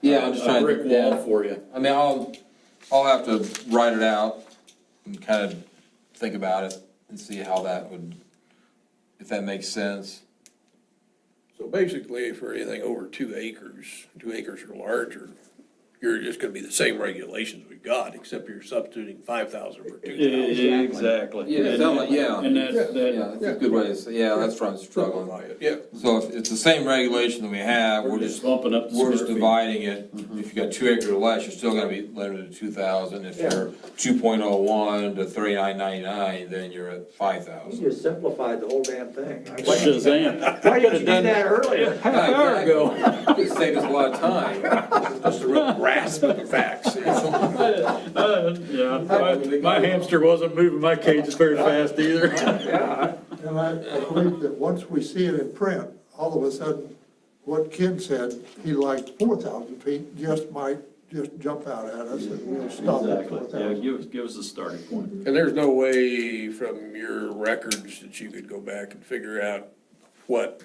Yeah, I'm just Uh, a trying brick to, wall yeah. for you. I mean, I'll, I'll have to write it out and kind of think about it and see how that would, if that makes sense. So basically, for anything over two acres, two acres or larger, you're just gonna be the same regulations we've got, except you're substituting five thousand for two thousand. Exactly. Yeah, it sounds like, yeah, And that, yeah, that, that's a good way to say, yeah, that's what I'm struggling. Yeah, So if it's the same regulation that we have, we're just we're bumping up the just square feet. dividing it. If you got two acre or less, you're still gonna be limited to two thousand. If you're two point oh one to thirty-nine ninety-nine, then you're at five You thousand. just simplified the whole damn thing. Shazam. Why didn't you do that earlier? Half hour ago. Saved us a lot of time. just a real grasp of the facts. Uh, Yeah, my- my hamster wasn't moving my cages very fast either. And I I believe that once we see it in print, all of a sudden, what Ken said, he liked four thousand feet, just might just jump out at us and we'll stop at Exactly, four yeah, thousand. give us, give us a starting point. And there's no way from your records that you could go back and figure out what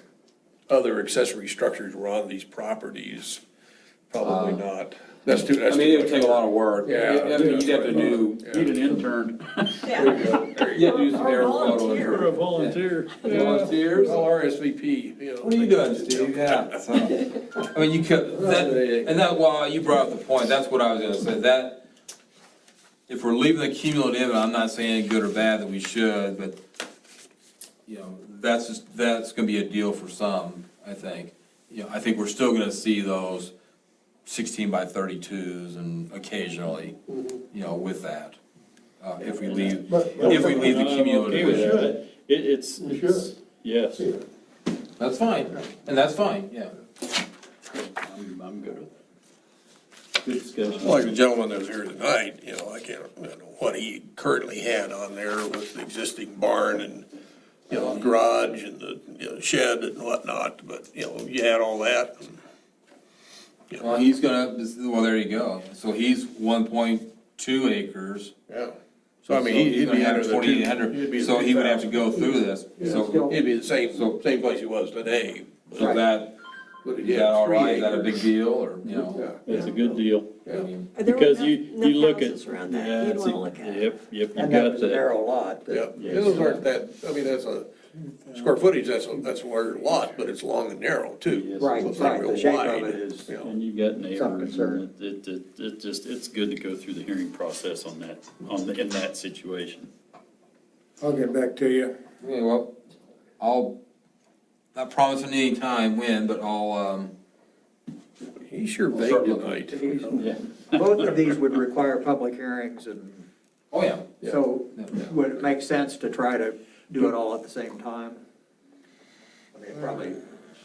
other accessory structures were on these properties. Probably not. That's too, Uh, I that's mean, it would too take much. a lot of work. Yeah. I mean, You'd have to do, Need an intern. you'd have to do some You're air a photos. volunteer. Volunteers? Well, RSVP, you know. What are you doing, Steve? Yeah, so, I mean, you could, that, and that, well, you brought up the point, that's what I was gonna say, that, if we're leaving the cumulative, and I'm not saying good or bad that we should, but, you know, that's just, that's gonna be a deal for some, I think. You know, I think we're still gonna see those sixteen by thirty-twos and occasionally, you know, with that. Uh, if we leave, But- but- if Uh, we leave the I'm okay cumulative. with We that. should. It, it's, We it's- should. yes. That's fine, and that's fine, yeah. I'm, I'm good with that. Good discussion. Like the gentleman that was here tonight, you know, I can't, I don't know what he currently had on there with the existing barn and, you know, garage and the, you know, shed and whatnot, but, you know, you had all that. and, you know, Well, he's gonna, this- well, there you go. So he's one point two acres. Yeah, so I mean, So he'd- he's he'd gonna be have under the two. 2,800. he'd be the So he would have to 2,000. go through this. So, He'd be the same, So- same place he was today. but- so that, but he is had that all three right? Is that a acres. big deal or, you know? It's a good deal. I mean, There were Because no- you, no you look at. houses around that. yeah, You'd it's a- wanna look at it. Yep, yep, you And that got was a that. narrow lot, but Yeah, those aren't that, I mean, that's a, square footage, that's, a- that's a larger lot, but it's long and narrow too. Yes. So Right, it's not right, the real shape wide, of it is- you know. And you've got Some neighbors, concern. and it, it, it just, it's good to go through the hearing process on that, on, the- in that situation. I'll get back to you. Okay, well, I'll, not promising any time when, but I'll, um, He sure We'll start baked looking. tonight. these- Yeah. both of these would require public hearings and oh, yeah. so Yeah, yeah. would it make sense to try to do it all at the same time? I mean, probably.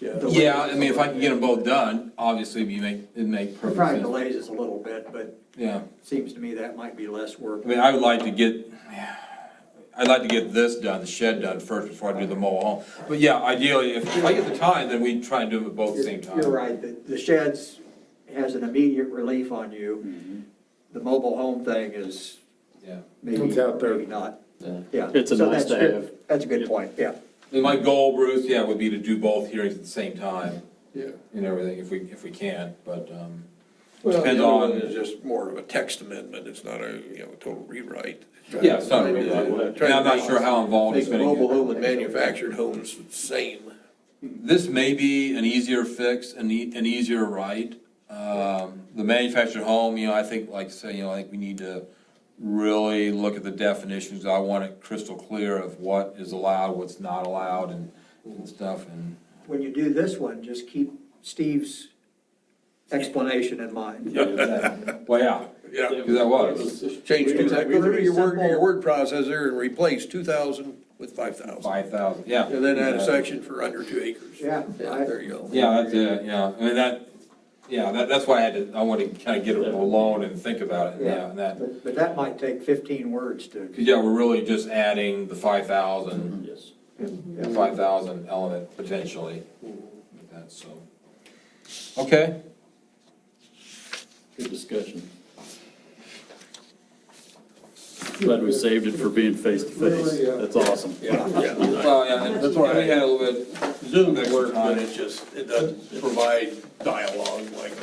the way- Yeah, I mean, if I can get them both done, obviously you make, it make It perfect Probably sense. delays us a little bit, but Yeah. seems to me that might be less work. I mean, I would like to get, I'd like to get this done, the shed done first before I do the mobile home. But yeah, ideally, if if I get the time, then we try and do them at both at the same time. You're right, the, the sheds has an immediate relief on Mm-hmm. you. The mobile home thing is Yeah. maybe, It's out there. maybe not, yeah. It's a So nice that's to good. have. That's a good Yep. point, yeah. And my goal, Bruce, yeah, would be to do both hearings at the same time Yeah. and everything, if we, if we can, but, um, Well, the Depends other one on- is just more of a text amendment, it's not a, you know, total rewrite. yeah, it's not really, and I'm not sure how involved Make it's the gonna mobile get. home and manufactured homes the same. This may be an easier fix, an e, an easier right. Um, the manufactured home, you know, I think, like I say, you know, I think we need to really look at the definitions. I want it crystal clear of what is allowed, what's not allowed and, and stuff and. When you do this one, just keep Steve's explanation in mind. Well, yeah, Yeah. cause that was Change two thousand, go through your word, your Simple. word processor and replace two thousand with five thousand. five thousand, yeah. And then add a section for under two acres. Yeah, I- There you go. Yeah, that's it, yeah, I mean, that, yeah, that, that's why I had to, I wanted to kinda get it alone and think about it, yeah, and that. But, but that might take fifteen words to, Cause yeah, we're really just adding the five thousand Yes. the five thousand element potentially. with that, so. Okay, Good discussion. Glad we saved it for being face to face. That's awesome. well, yeah, and that's why we had a little bit. Zoom Next works, time. but it just, it doesn't provide dialogue like